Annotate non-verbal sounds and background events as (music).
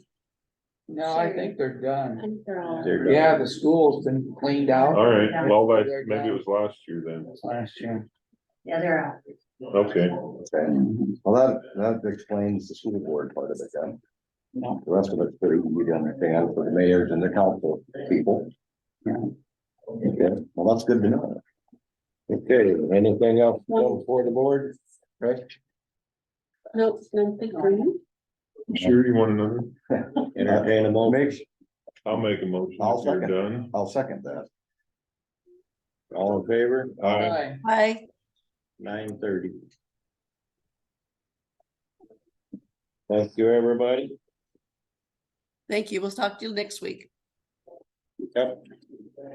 No, I think they're done. I'm uh, thrown. They're done. Yeah, the school's been cleaned out All right, well, that, maybe it was last year then. last year. Yeah, they're out. Okay, Okay, well, that, that explains the school board part of it then. Yeah. The rest of it's pretty easy to understand for the mayors and the council people. Yeah. Okay, well, that's good to know. Okay, anything else going for the board? Right? Nope, nothing for you. sure you want another? (laughs) Entertain a motion. I'll make a motion I'll if you're done. I'll second that. All in favor? Aye. Hi. Hi. Nine thirty. Thank you, everybody. Thank you. We'll talk to you next week. Yep.